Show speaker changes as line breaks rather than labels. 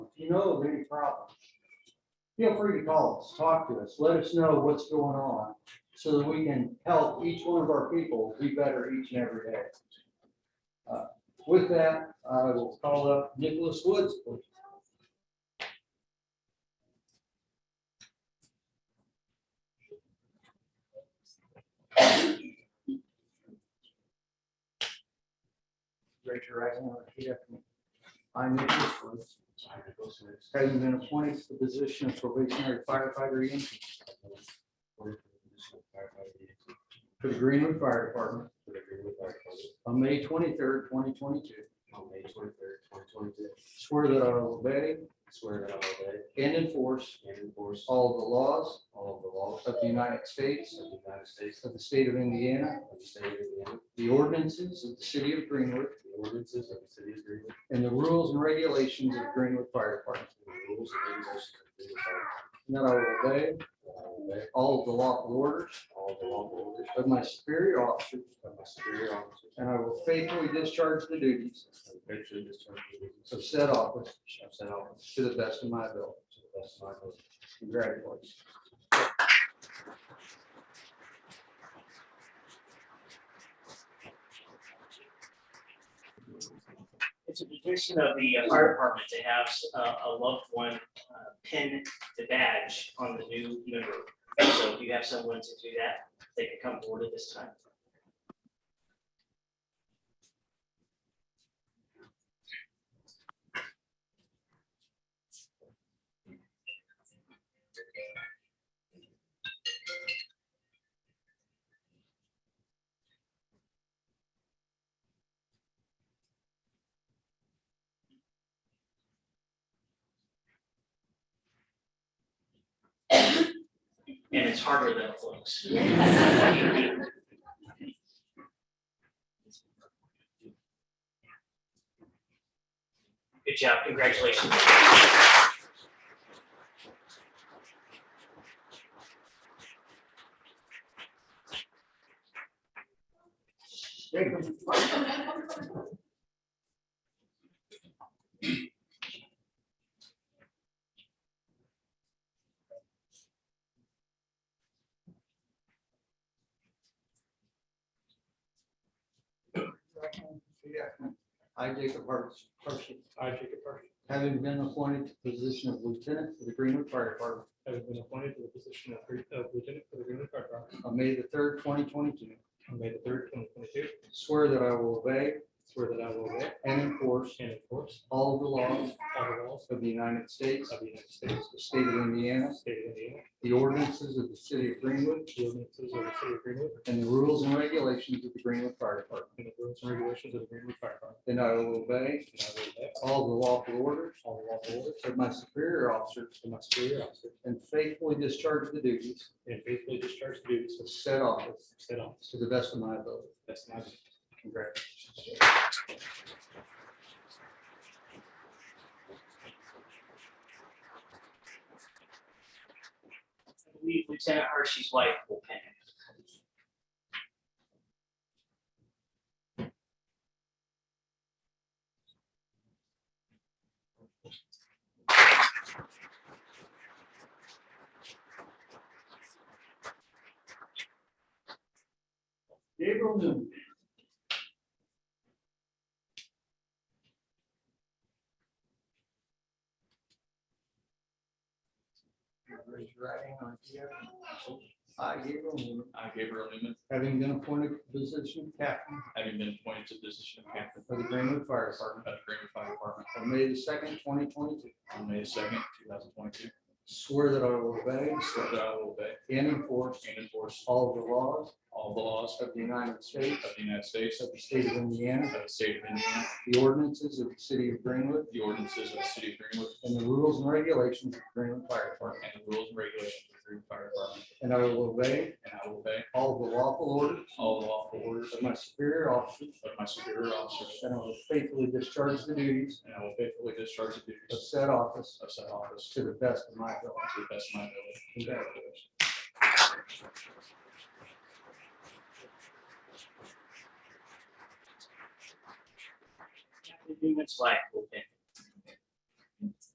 know of any problems, feel free to call us, talk to us, let us know what's going on so that we can help each one of our people be better each and every day. Uh, With that, I will call up Nicholas Woods, please. Raise your right hand and repeat after me. I, Nicholas Woods. Having been appointed to the position of probationary firefighter Yankee for the Greenwood Fire Department on May twenty-third, twenty twenty-two.
On May twenty-third, twenty twenty-two,
Swear that I will obey
swear that I will obey
and enforce
and enforce
all the laws
all of the laws
of the United States,
of the United States,
of the state of Indiana,
of the state of Indiana,
the ordinances of the city of Greenwood,
the ordinances of the city of Greenwood,
and the rules and regulations of Greenwood Fire Department.
and the rules and regulations of the city of Greenwood.
And that I will obey
That I will obey
all of the lawful orders
all of the lawful orders
of my superior officers,
of my superior officers.
and I will faithfully discharge the duties
And eventually discharge the duties
of said office
of said office
to the best of my ability.
to the best of my ability.
Congratulations.
It's a depiction of the uh, fire department to have uh, a loved one uh, pin the badge on the new member. So if you have someone to do that, they can come forward at this time. And it's harder than it looks. Good job, congratulations.
Jacob. I, Jacob Hart- Harshit,
I, Jacob Park,
having been appointed to the position of lieutenant for the Greenwood Fire Department
having been appointed to the position of Gre- of Lieutenant for the Greenwood Fire Department
on May the third, twenty twenty-two,
on May the third, twenty twenty-two,
swear that I will obey
swear that I will obey
and enforce
and enforce
all the laws
all the laws
of the United States,
of the United States,
the state of Indiana,
the state of Indiana,
the ordinances of the city of Greenwood,
the ordinances of the city of Greenwood,
and the rules and regulations of the Greenwood Fire Department.
and the rules and regulations of the Greenwood Fire Department.
And I will obey
And I will obey
all the lawful orders
all the lawful orders
of my superior officers
of my superior officers
and faithfully discharge the duties
and faithfully discharge the duties
of
of
said office
said office.
to the best of my ability.
That's my.
Congratulations.
I believe Lieutenant Hershey's wife will pin it.
Gabriel Newman. Raise your right hand on the other. I, Gabriel Newman,
I, Gabriel Newman,
having been appointed to the position of captain
having been appointed to the position of captain
of the Greenwood Fire
of
Department
the Greenwood Fire Department
on May the second, twenty twenty-two,
on May second, two thousand twenty-two,
swear that I will obey
swear that I will obey
and enforce
and enforce
all of the laws
all the laws
of the United States,
of the United States,
of
of
the state of Indiana,
the state of Indiana,
the ordinances of the city of Greenwood,
the ordinances of the city of Greenwood,
and the rules and regulations of Greenwood Fire Department.
and the rules and regulations of the Greenwood Fire Department,
And I will obey
and I will obey
all the lawful orders
all the lawful orders
of
of
my superior officers,
of uh, my superior officers,
and I will faithfully discharge the duties
and I will faithfully discharge the
of
duties
said office
of said office
to the best of my ability.
to the best of my ability.
Congratulations.
Lieutenant Newman's wife will pin it.